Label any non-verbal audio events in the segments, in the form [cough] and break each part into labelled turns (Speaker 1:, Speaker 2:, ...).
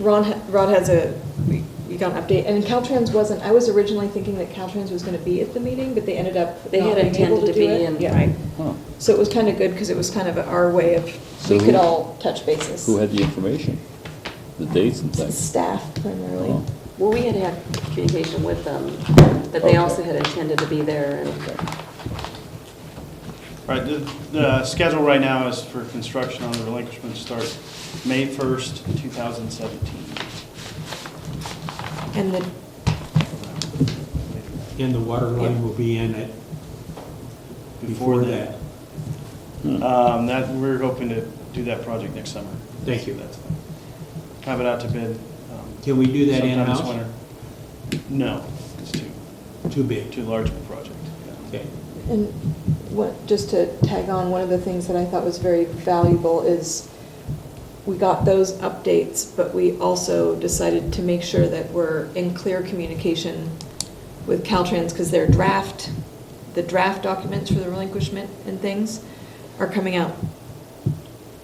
Speaker 1: Ron, ha- Rod has a, we we got an update, and Caltrans wasn't, I was originally thinking that Caltrans was gonna be at the meeting, but they ended up
Speaker 2: They
Speaker 1: not
Speaker 2: had
Speaker 1: being able
Speaker 2: intended to
Speaker 1: do
Speaker 2: be
Speaker 1: it.
Speaker 2: and-
Speaker 1: Yeah.
Speaker 2: right.
Speaker 3: Huh.
Speaker 1: So it was kinda good, cause it was kind of our way of,
Speaker 3: So
Speaker 1: we could
Speaker 3: who-
Speaker 1: all touch bases.
Speaker 3: Who had the information? The dates and things?
Speaker 1: Staff primarily.
Speaker 3: Oh.
Speaker 2: Well, we had had communication with them, but they
Speaker 3: Okay.
Speaker 2: also had intended to be there, and
Speaker 3: Okay.
Speaker 4: All right, the, the schedule right now is for construction on the relinquishment to start May 1st, 2017.
Speaker 1: And the,
Speaker 5: And the water line will be in it before that.
Speaker 4: Um, that, we're hoping to do that project next summer.
Speaker 5: Thank you.
Speaker 4: That's- Have it out to bid. um,
Speaker 5: Can we do that
Speaker 4: sometime this
Speaker 5: in-house?
Speaker 4: winter. No, it's too,
Speaker 5: Too big.
Speaker 4: too large of a project. yeah.
Speaker 5: Okay.
Speaker 1: and what, just to tag on, one of the things that I thought was very valuable is we got those updates, but we also decided to make sure that we're in clear communication with Caltrans, because their draft, the draft documents for the relinquishment and things are coming out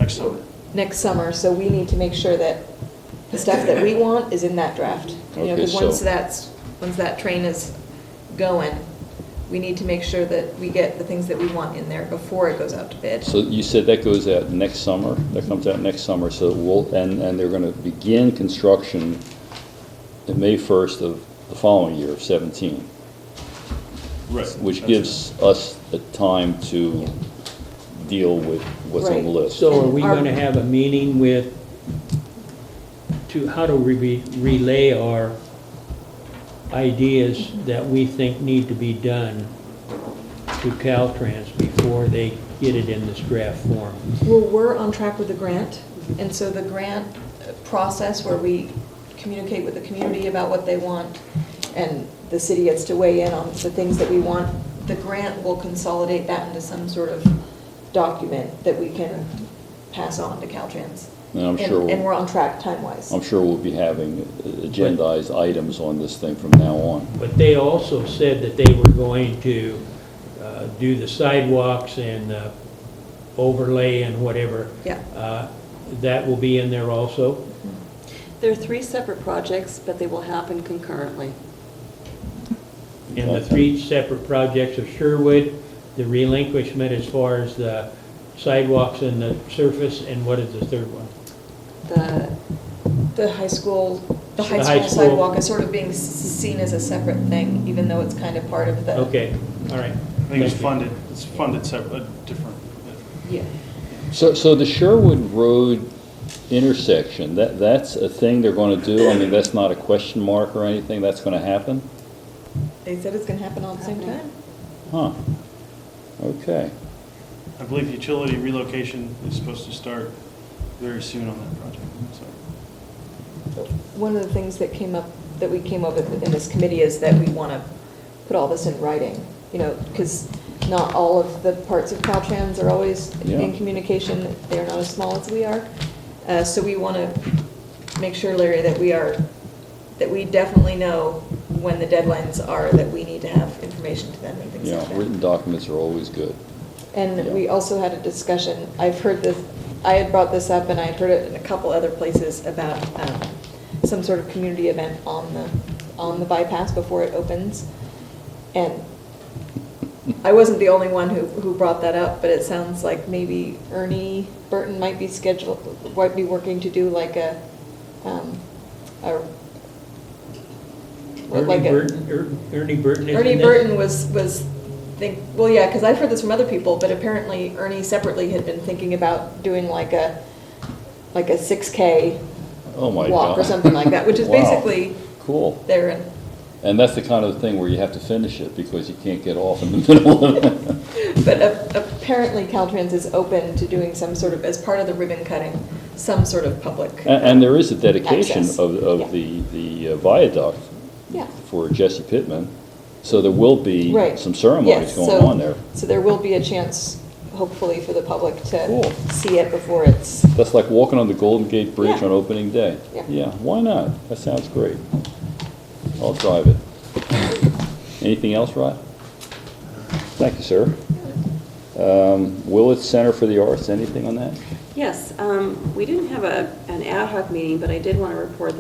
Speaker 4: Next summer.
Speaker 1: next summer, so we need to make sure that the stuff that we want is in that draft. You know,
Speaker 3: Okay,
Speaker 1: because once
Speaker 3: so-
Speaker 1: that's, once that train is going, we need to make sure that we get the things that we want in there before it goes out to bid.
Speaker 3: So you said that goes out next summer, that comes out next summer, so we'll, and, and they're gonna begin construction in May first of the following year, of seventeen,
Speaker 4: Right.
Speaker 3: which
Speaker 4: That's
Speaker 3: gives us the time to deal with what's on the
Speaker 1: Right.
Speaker 3: list.
Speaker 5: So are we
Speaker 1: Our-
Speaker 5: going to have a meeting with, to, how do we re- relay our ideas that we think need to be done to Caltrans before they get it in this draft form?
Speaker 1: Well, we're on track with the grant, and so the grant process where we communicate with the community about what they want, and the city gets to weigh in on the things that we want, the grant will consolidate that into some sort of document that we can pass on to Caltrans.
Speaker 3: And I'm sure we'll-
Speaker 1: And we're on track time-wise.
Speaker 3: I'm sure we'll be having agendized items on this thing from now on.
Speaker 5: But they also said that they were going to uh, do the sidewalks and uh, overlay and whatever.
Speaker 1: Yeah.
Speaker 5: Uh, That will be in there also?
Speaker 2: there are three separate projects, but they will happen concurrently.
Speaker 5: And the three separate projects of Sherwood, the relinquishment as far as the sidewalks and the surface, and what is the third one?
Speaker 2: The,
Speaker 1: The high school, the high
Speaker 5: The high
Speaker 1: school
Speaker 5: school.
Speaker 1: sidewalk is sort of being s- seen as a separate thing, even though it's kind of part of the.
Speaker 5: Okay, all right.
Speaker 4: it. I think it's
Speaker 5: Thank you.
Speaker 4: funded, it's funded separate, different. uh,
Speaker 1: Yeah.
Speaker 3: So, so the Sherwood Road intersection, that, that's a thing they're gonna do? I mean, that's not a question mark or anything, that's gonna happen?
Speaker 1: They said it's gonna happen all at the same time.
Speaker 3: Huh, okay.
Speaker 4: I believe utility relocation is supposed to start very soon on that project, so.
Speaker 1: One of the things that came up, that we came up with in this committee is that we want to put all this in writing, you know, because not all of the parts of Caltrans are always in
Speaker 3: Yeah.
Speaker 1: communication. They're not as small as we are. Uh, So we want to make sure, Larry, that we are, that we definitely know when the deadlines are, that we need to have information to them and things
Speaker 3: You know,
Speaker 1: like that.
Speaker 3: written documents are always good.
Speaker 1: And
Speaker 3: Yeah.
Speaker 1: we also had a discussion, I've heard this, I had brought this up and I had heard it in a couple other places about um, some sort of community event on the, on the bypass before it opens. And I wasn't the only one who, who brought that up, but it sounds like maybe Ernie Burton might be scheduled, might be working to do like a, um, a. what, like
Speaker 5: Ernie
Speaker 1: a-
Speaker 5: Burton, Er- Ernie Burton is in
Speaker 1: Ernie
Speaker 5: this?
Speaker 1: Burton was, was think, well, yeah, because I've heard this from other people, but apparently Ernie separately had been thinking about doing like a, like a six K
Speaker 3: Oh, my God.
Speaker 1: walk or something like that, which is
Speaker 3: [laughs] Wow.
Speaker 1: basically
Speaker 3: Cool.
Speaker 1: there and,
Speaker 3: And that's the kind of thing where you have to finish it because you can't get off in the [laughs] middle of it.
Speaker 1: but a- apparently Caltrans is open to doing some sort of, as part of the ribbon cutting, some sort of public.
Speaker 3: A- And there is a dedication
Speaker 1: Access.
Speaker 3: of, of the, the uh, viaduct
Speaker 1: Yeah.
Speaker 3: for Jesse Pittman, so there will be
Speaker 1: Right.
Speaker 3: some ceremonies
Speaker 1: Yes,
Speaker 3: going
Speaker 1: so-
Speaker 3: on there.
Speaker 1: So there will be a chance, hopefully, for the public
Speaker 3: Cool.
Speaker 1: to see it before it's,
Speaker 3: That's like walking on the Golden Gate Bridge
Speaker 1: Yeah.
Speaker 3: on opening day.
Speaker 1: Yeah.
Speaker 3: why not? That sounds great. I'll drive it. Anything else, Rod? Thank you, sir. Um, Willett Center for the Arts, anything on that?
Speaker 2: Yes, um, we didn't have a, an ad hoc meeting, but I did want to report